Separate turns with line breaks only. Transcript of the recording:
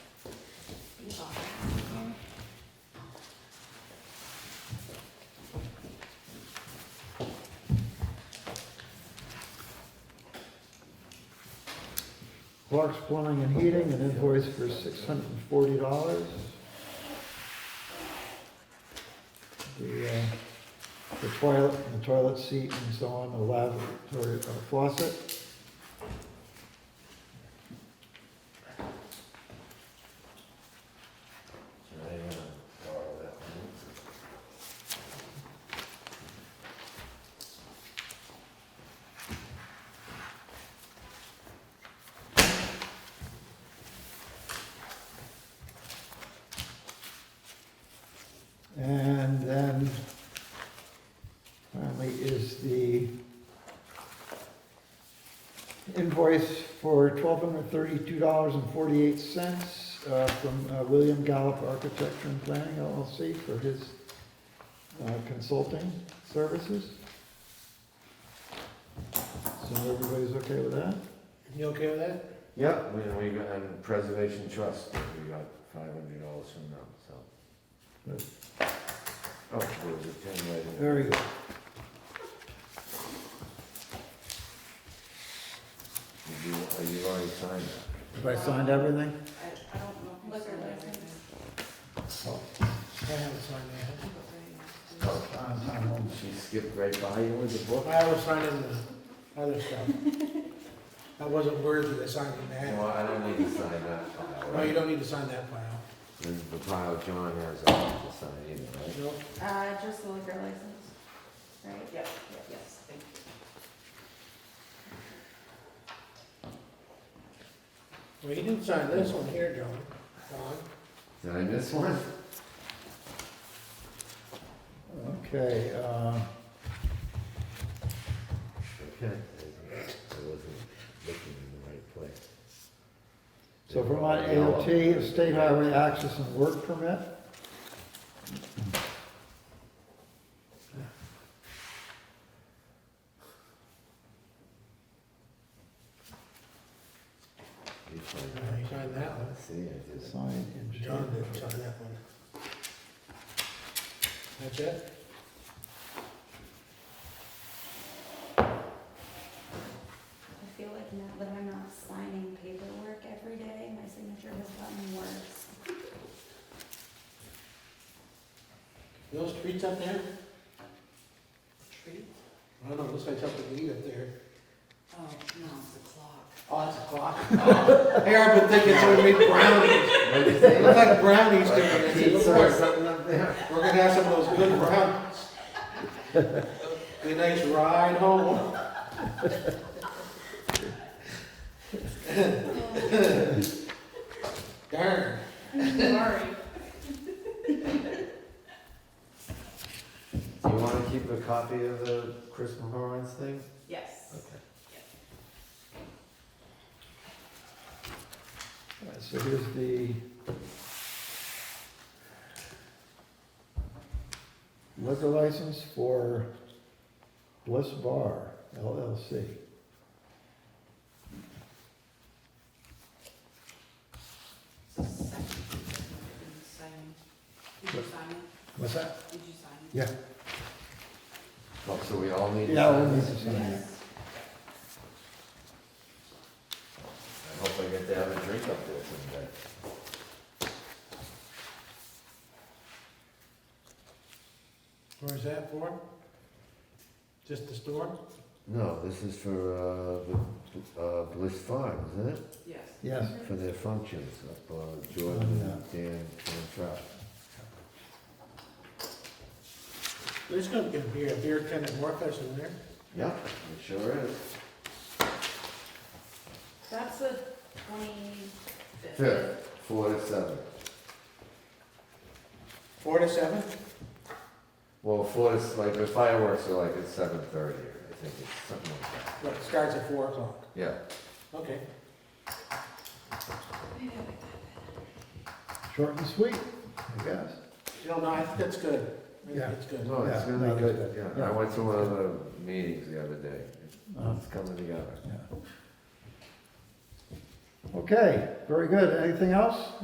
Clark's Plumbing and Heating, an invoice for six hundred and forty dollars. The, uh, the toilet, the toilet seat and so on, the lavatory uh, faucet.
I uh, borrow that one.
And then finally is the invoice for twelve hundred thirty-two dollars and forty-eight cents from uh, William Gallup Architecture and Planning LLC for his uh, consulting services. So everybody's okay with that?
You okay with that?
Yep, we, we got, and Preservation Trust, we got five hundred dollars from them, so.
Good.
Oh, there was a ten right in there.
Very good.
Did you, are you already signed that?
Have I signed everything?
I, I don't know. if I
Liquor
said that
license.
right.
I haven't signed that.
Oh,
I'm- I'm on.
She skipped right by you with the book?
I was signing the other stuff. I wasn't worthy of signing that.
Well, I don't need to sign that file,
No, you
right?
don't need to sign that file.
This is the file John has, I don't have to sign either, right?
Nope.
Uh, just the liquor license, right?
Yep,
Yes.
thank you.
Well, you didn't sign this one here, John. John,
Did I miss one?
Okay, uh,
Okay. I wasn't looking in the right place.
so Vermont AOT, State Highway Access and Work Permit.
You signed
uh, you signed that one.
that? See, I did.
Sign in
John didn't sign that one. That's it?
I feel like now that I'm not signing paperwork every day, my signature has gotten worse.
Those treats up there?
Tree?
I don't know, looks like something to eat up there.
Oh, no, it's the clock.
Oh, it's a clock. Hey, I've been thinking it's gonna be brownies.
What'd you
It
say?
looks like brownies down
Like a
there.
pizza or something up there?
We're gonna have some of those good brownies. Be a nice ride home.
Oh.
Darn.
Sorry.
Do you wanna keep a copy of the Chris Mahorns thing?
Yes.
All right, So here's the liquor license for Bliss Bar LLC.
Second. Signing. Did you sign it? Uh,
What's that?
Did you sign
Yeah.
Oh, so we all need to
Yeah, we'll
sign
need
this?
to
it?
sign it.
I hope I get to have a drink up there someday.
Where's that for? Just the store?
No, this is for, uh, the, uh, Bliss Farm, isn't it?
Yes.
Yes,
For their functions up, uh, Jordan and Dan, Dan Trout.
There's gonna be a beer, beer tent at Morpheus in there.
Yep, it sure is.
That's the twenty-fifth.
Fifth, four to seven.
Four to seven?
Well, four is like, the fireworks are like at seven thirty, I think, it's something like that.
What, it starts at four o'clock?
Yeah.
Okay.
short and sweet, I guess.
You know, no, I think that's good. I think
Yeah.
that's good.
No, it's
Yeah,
gonna
no,
be
that's
good,
good.
yeah, I
Yeah.
went to one of the meetings the other day,
Uh,
it's coming together.
yeah. Okay, very good. Anything else?